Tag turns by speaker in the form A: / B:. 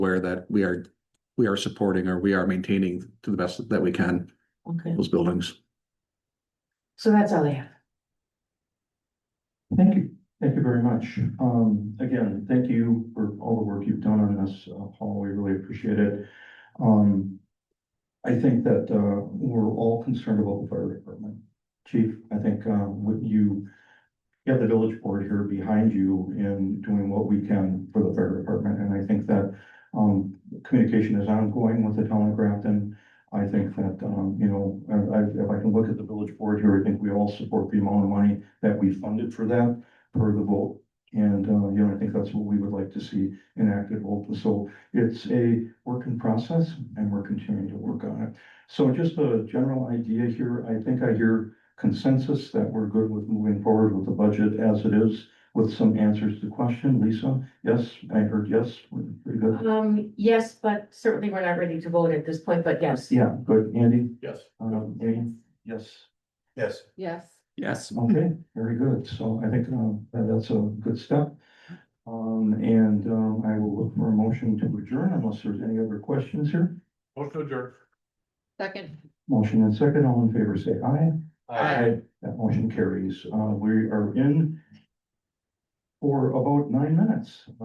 A: aware that we are, we are supporting or we are maintaining to the best that we can
B: Okay,
A: those buildings.
B: so that's all I have.
C: Thank you, thank you very much. Um, again, thank you for all the work you've done on this, uh, Paul, we really appreciate it. Um, I think that, uh, we're all concerned about the fire department. Chief, I think, um, what you, you have the village board here behind you in doing what we can for the fire department, and I think that, um, communication is ongoing with the town of Grafton. I think that, um, you know, I, I- if I can look at the village board here, I think we all support the amount of money that we funded for that per the vote. And, uh, you know, I think that's what we would like to see enacted. Well, So it's a work in process and we're continuing to work on it. So just a general idea here, I think I hear consensus that we're good with moving forward with the budget as it is with some answers to question. Lisa, yes, I heard yes, we're pretty good.
B: Um, yes, but certainly we're not ready to vote at this point, but yes.
C: Yeah, good. Andy,
D: Yes.
C: um, Amy, yes.
D: Yes.
B: Yes.
A: Yes.
C: Okay, very good. So I think um, that- that's a good step. Um, And um, I will look for a motion to adjourn unless there's any other questions here.
D: Motion adjourned.
E: Second.
C: Motion and second, all in favor, say aye. That motion carries. Uh, We are in for about nine minutes.